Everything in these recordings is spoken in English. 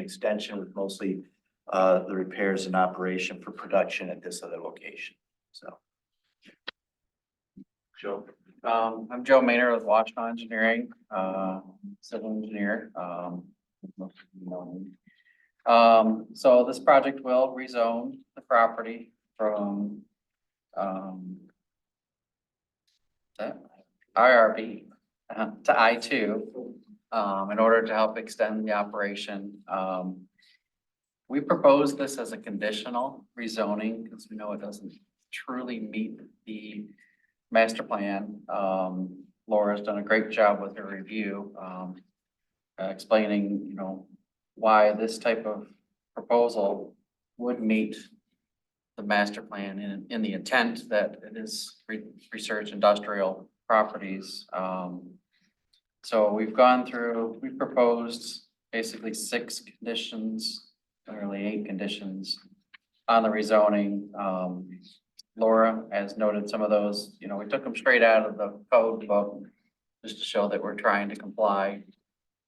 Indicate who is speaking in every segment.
Speaker 1: extension with mostly uh, the repairs and operation for production at this other location, so.
Speaker 2: Joe. Um, I'm Joe Maynard with Washington Engineering, uh, civil engineer, um. most of you know me. Um, so this project will rezone the property from, um. that, IRB uh, to I two, um, in order to help extend the operation, um. We propose this as a conditional rezoning, because we know it doesn't truly meet the master plan. Um, Laura's done a great job with her review, um, uh, explaining, you know, why this type of proposal would meet the master plan in, in the intent that it is re- research industrial properties. Um, so we've gone through, we proposed basically six conditions, really eight conditions on the rezoning. Um, Laura has noted some of those, you know, we took them straight out of the code book just to show that we're trying to comply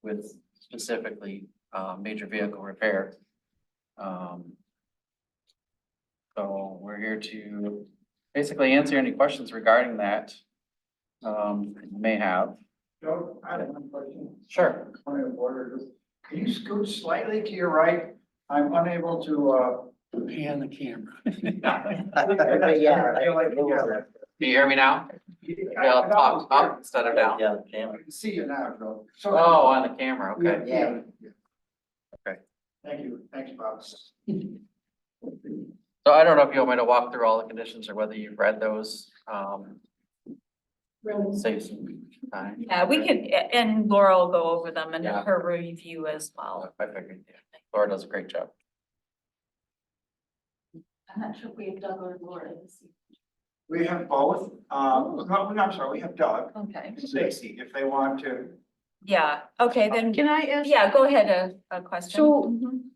Speaker 2: with specifically uh major vehicle repair. Um. So we're here to basically answer any questions regarding that. Um, you may have.
Speaker 3: Joe, I have one question,
Speaker 2: Sure.
Speaker 3: point of order, Just- can you scoot slightly to your right? I'm unable to, uh. Pan the camera. I feel like, yeah.
Speaker 2: Can you hear me now?
Speaker 3: I-
Speaker 2: Yeah,
Speaker 3: I
Speaker 2: up, up
Speaker 3: thought
Speaker 2: instead of down.
Speaker 1: Yeah,
Speaker 3: it
Speaker 1: Jim.
Speaker 3: was- I can See you now, Joe. So-
Speaker 2: Oh, on the camera,
Speaker 3: Yeah,
Speaker 2: okay.
Speaker 3: yeah. yeah.
Speaker 2: Okay.
Speaker 3: Thank you, thanks, Bob.
Speaker 2: So I don't know if you want me to walk through all the conditions or whether you've read those, um, save some time.
Speaker 4: Yeah, we could, and Laura will go over them in
Speaker 2: Yeah.
Speaker 4: her review as
Speaker 2: I
Speaker 4: well.
Speaker 2: figured, yeah, Laura does a great job.
Speaker 5: I'm not sure if we have Doug or Laura this
Speaker 3: We have both, um, no, no, I'm sorry, we have Doug,
Speaker 5: evening. Okay.
Speaker 3: and Stacy, if they want to.
Speaker 4: Yeah, okay, then,
Speaker 5: Can I ask?
Speaker 4: yeah, go ahead, a, a question.
Speaker 5: So
Speaker 4: Mhm.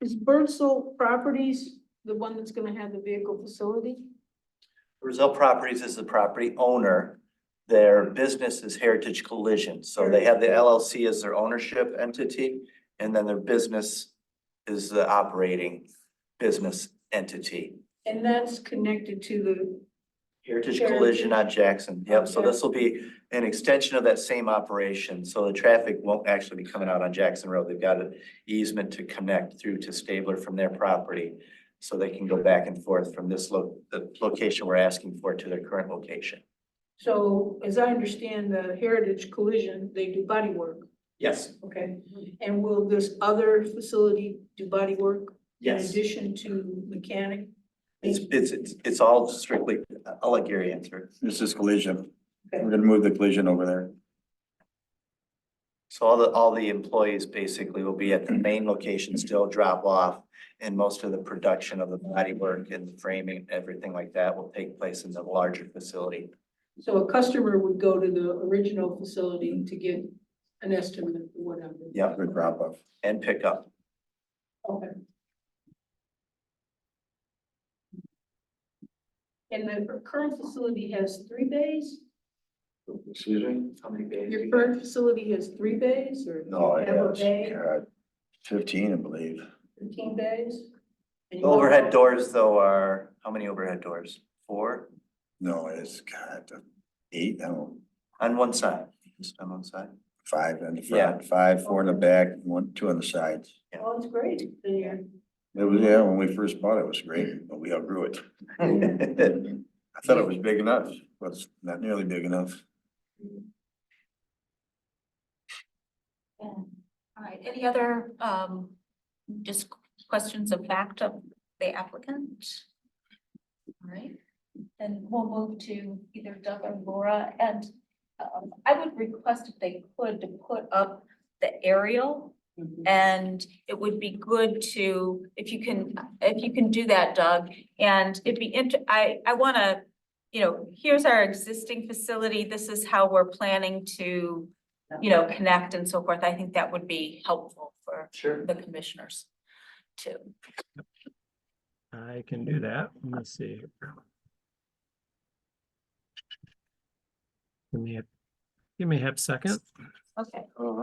Speaker 5: is Birdsell Properties the one that's gonna have the vehicle facility?
Speaker 1: Brazil Properties is the property owner. Their business is Heritage Collision, so they have the LLC as their ownership entity, and then their business is the operating business entity.
Speaker 5: And that's connected to the,
Speaker 1: Heritage Collision on Jackson, yep, so
Speaker 5: Okay.
Speaker 1: this will be an extension of that same operation, so the traffic won't actually be coming out on Jackson Road, they've got an easement to connect through to Stabler from their property, so they can go back and forth from this lo- the location we're asking for to their current location.
Speaker 5: so as I understand, the Heritage Collision, they do body work.
Speaker 1: Yes,
Speaker 5: Okay. And will this other facility do body work in addition to mechanic?
Speaker 1: It's, it's, it's, it's all strictly, I'll let Gary answer.
Speaker 6: This is collision.
Speaker 5: Okay.
Speaker 6: We're gonna move the collision over there.
Speaker 1: So all the, all the employees basically will be at the main location, still drop off. And most of the production of the bodywork and the framing, everything like that will take place in the larger facility.
Speaker 5: So a customer would go to the original facility to get an estimate or whatever.
Speaker 1: Yep,
Speaker 6: Good drop off.
Speaker 1: and pick up.
Speaker 5: Okay. And the current facility has three bays?
Speaker 6: Excuse me?
Speaker 2: How many days?
Speaker 5: Your current facility has three bays or? you
Speaker 6: No, it
Speaker 5: have a
Speaker 6: has,
Speaker 5: bay,
Speaker 6: God, fifteen, I believe.
Speaker 5: Fifteen bays? And
Speaker 1: The
Speaker 5: you
Speaker 1: Overhead
Speaker 5: have-
Speaker 1: doors though are, how many overhead doors? Four
Speaker 6: No, it's God, uh, eight, no,
Speaker 1: on one side, just on one side.
Speaker 6: five in the
Speaker 1: Yeah.
Speaker 6: front, five, four in the back, one, two on the sides.
Speaker 5: Oh, it's great. There.
Speaker 6: It was, yeah, when we first bought it, it was great, but we outgrew it. I thought it was big enough, but it's not nearly big enough.
Speaker 4: All right, any other, um, just questions of fact of the applicant? All right, then we'll move to either Doug or Laura, and, um, I would request if they could to put up the aerial. And it would be good to, if you can, if you can do that, Doug, and it'd be int- I, I wanna, you know, here's our existing facility, this is how we're planning to you know, connect and so forth, I think that would be helpful for
Speaker 1: Sure.
Speaker 4: the commissioners too.
Speaker 7: I can do that. Let's see. Give me a, give me a half second.
Speaker 4: Okay.